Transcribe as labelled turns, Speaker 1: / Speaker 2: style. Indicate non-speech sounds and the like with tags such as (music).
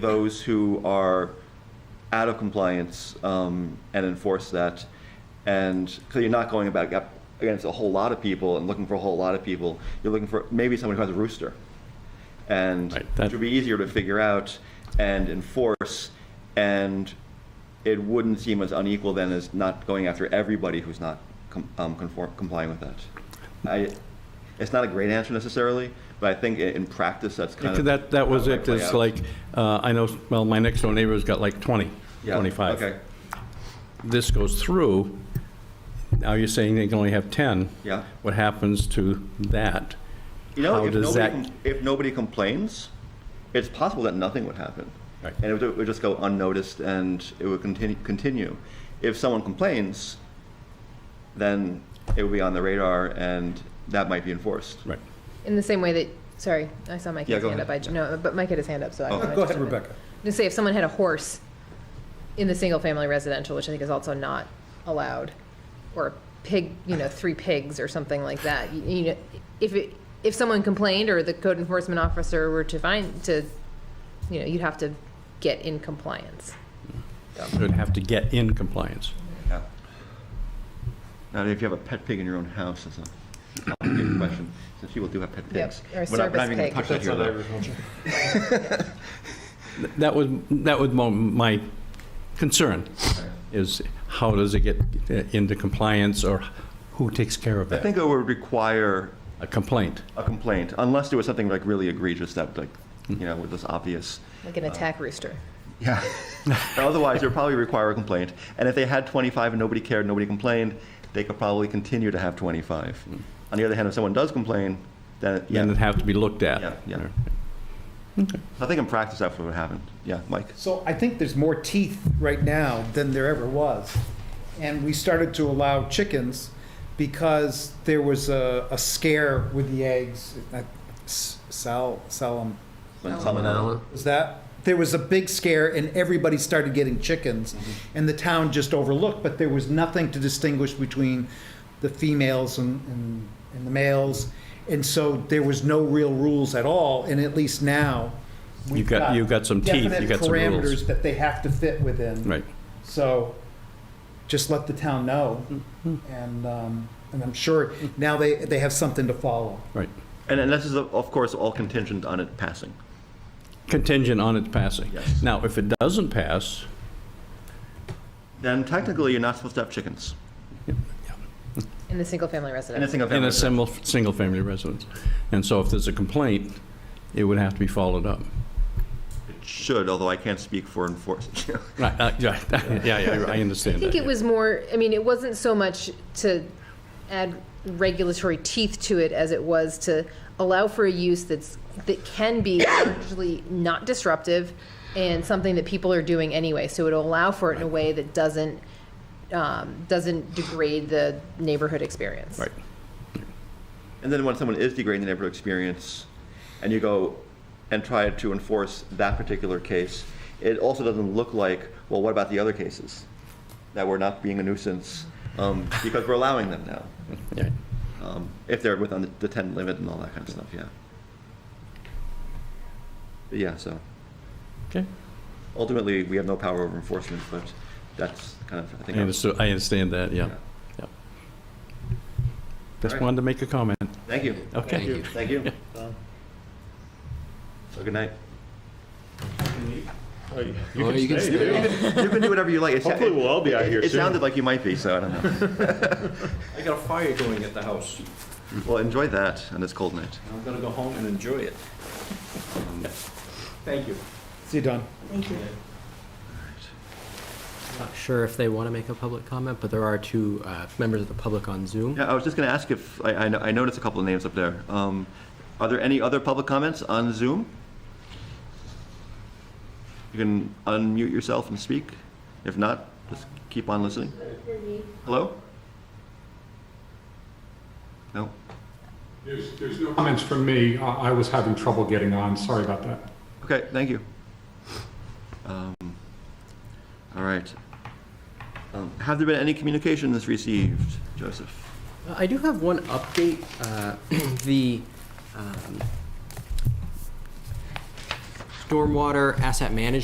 Speaker 1: those who are out of compliance um, and enforce that. And so you're not going about up against a whole lot of people and looking for a whole lot of people. You're looking for maybe someone who has a rooster. And
Speaker 2: Right, that-
Speaker 1: it would be easier to figure out and enforce. And it wouldn't seem as unequal then as not going after everybody who's not com- um, conform- complying with that. I, it's not a great answer necessarily, but I think i- in practice that's kind of
Speaker 2: That, that was
Speaker 1: how
Speaker 2: it,
Speaker 1: play
Speaker 2: it's
Speaker 1: out.
Speaker 2: like, uh, I know, well, my next door neighbor's got like 20,
Speaker 1: Yeah,
Speaker 2: 25.
Speaker 1: Okay,
Speaker 2: This goes through, now you're saying they can only have 10.
Speaker 1: Yeah.
Speaker 2: What happens to that?
Speaker 1: you know,
Speaker 2: How
Speaker 1: if
Speaker 2: does
Speaker 1: nobody,
Speaker 2: that-
Speaker 1: com- if nobody complains, it's possible that nothing would happen.
Speaker 2: Right.
Speaker 1: And it would, it would just go unnoticed and it would continue, continue. If someone complains, then it would be on the radar and that might be enforced.
Speaker 2: Right.
Speaker 3: In the same way that, sorry, I saw Mike
Speaker 1: Yeah,
Speaker 3: had his
Speaker 1: go
Speaker 3: hand up. I,
Speaker 1: ahead.
Speaker 3: no, but Mike had his hand up, so I.
Speaker 1: Oh.
Speaker 3: wanted
Speaker 4: Go
Speaker 3: to
Speaker 4: ahead,
Speaker 3: jump in.
Speaker 4: Rebecca.
Speaker 3: Just say if someone had a horse in the single-family residential, which I think is also not allowed, or a pig, you know, three pigs or something like that, you, you know, if it, if someone complained or the code enforcement officer were to find, to, you know, you'd have to get in compliance.
Speaker 2: Would have to get in compliance.
Speaker 1: Yeah. Now, if you have a pet pig in your own house, it's a complicated question, since people do have pet
Speaker 3: Yep,
Speaker 1: pigs.
Speaker 3: or a
Speaker 1: We're not- we're not
Speaker 3: service
Speaker 1: even gonna
Speaker 3: pig.
Speaker 1: touch that here, though.
Speaker 2: That was, that was mo- my concern, is how does it get uh, into compliance, or who takes care of
Speaker 1: I
Speaker 2: that?
Speaker 1: think it would require
Speaker 2: A complaint.
Speaker 1: a complaint, unless there was something like really egregious that, like, you know, was just obvious.
Speaker 3: Like an attack rooster.
Speaker 1: Yeah. (laughs) Otherwise, it would probably require a complaint. And if they had 25 and nobody cared, nobody complained, they could probably continue to have 25. On the other hand, if someone does complain, then,
Speaker 2: Then
Speaker 1: yeah,
Speaker 2: it'd have to be looked at.
Speaker 1: Yeah, yeah. I think in practice, that's what would happen. Yeah, Mike?
Speaker 4: So I think there's more teeth right now than there ever was. And we started to allow chickens because there was a, a scare with the eggs. Uh, s- Sal, Salam, was that? There was a big scare and everybody started getting chickens.
Speaker 2: Mm-hmm.
Speaker 4: And the town just overlooked, but there was nothing to distinguish between the females and, and, and the males. And so there was no real rules at all, and at least now. we've
Speaker 2: You've got- you've got some teeth,
Speaker 4: definite
Speaker 2: you've got some rules.
Speaker 4: Parameters that they have to fit within.
Speaker 2: Right.
Speaker 4: So just let the town know.
Speaker 2: Mm-hmm.
Speaker 4: And, um, and I'm sure now they, they have something to follow.
Speaker 2: Right.
Speaker 1: And and this is, of course, all contingent on it passing.
Speaker 2: Contingent on its passing.
Speaker 1: Yes.
Speaker 2: Now, if it doesn't pass,
Speaker 1: Then technically, you're not supposed to have chickens.
Speaker 3: In the single-family residential.
Speaker 1: Anything of
Speaker 2: in a
Speaker 1: that.
Speaker 2: single, single-family residence. And so if there's a complaint, it would have to be followed up.
Speaker 1: It should, although I can't speak for (laughs) enforcement.
Speaker 2: Right, uh, yeah, (laughs) yeah, yeah, I understand
Speaker 3: I think
Speaker 2: that,
Speaker 3: it
Speaker 2: yeah.
Speaker 3: was more, I mean, it wasn't so much to add regulatory teeth to it as it was to allow for a use that's, that can be largely not disruptive and something that people are doing anyway. So it'll allow for it in a way that doesn't, um, doesn't degrade the neighborhood experience.
Speaker 2: Right.
Speaker 1: And then when someone is degrading the neighborhood experience, and you go and try to enforce that particular case, it also doesn't look like, well, what about the other cases? That we're not being a nuisance, um, because we're allowing them now,
Speaker 2: Yeah.
Speaker 1: um, if they're within the- the ten limit and all that kind of stuff, yeah. But Yeah, so
Speaker 2: Okay.
Speaker 1: ultimately, we have no power over enforcement, but that's kind of, I
Speaker 2: I
Speaker 1: think.
Speaker 2: understand, I understand that, yeah.
Speaker 1: Yeah.
Speaker 2: yeah. Just
Speaker 1: Alright.
Speaker 2: wanted to make a comment.
Speaker 1: Thank you.
Speaker 2: Okay. Thank you.
Speaker 1: Thank you. So good night.
Speaker 5: Oh, You can stay.
Speaker 1: You can do whatever you like. It's-
Speaker 5: Hopefully we'll all be out here
Speaker 1: It
Speaker 5: soon.
Speaker 1: sounded like you might be, so I don't
Speaker 5: (laughs)
Speaker 1: know.
Speaker 2: I got a fire going at the house.
Speaker 1: Well, enjoy that on this cold night.
Speaker 2: I'm gonna go home and enjoy it. Thank you.
Speaker 4: See you, Don.
Speaker 5: Not sure if they want to make a public comment, but there are two uh, members of the public on Zoom.
Speaker 1: Yeah, I was just going to ask if, I, I no- I noticed a couple of names up there. Um, Are there any other public comments on Zoom? You can unmute yourself and speak. If not, just keep on listening. Hello? No?
Speaker 6: There's, there's no comments from me. I, I was having trouble getting on. Sorry about that.
Speaker 1: Okay, thank you. Um, All right. Um, Have there been any communications received, Joseph?
Speaker 5: Uh, I do have one update. (clears throat) Uh, The um, stormwater asset management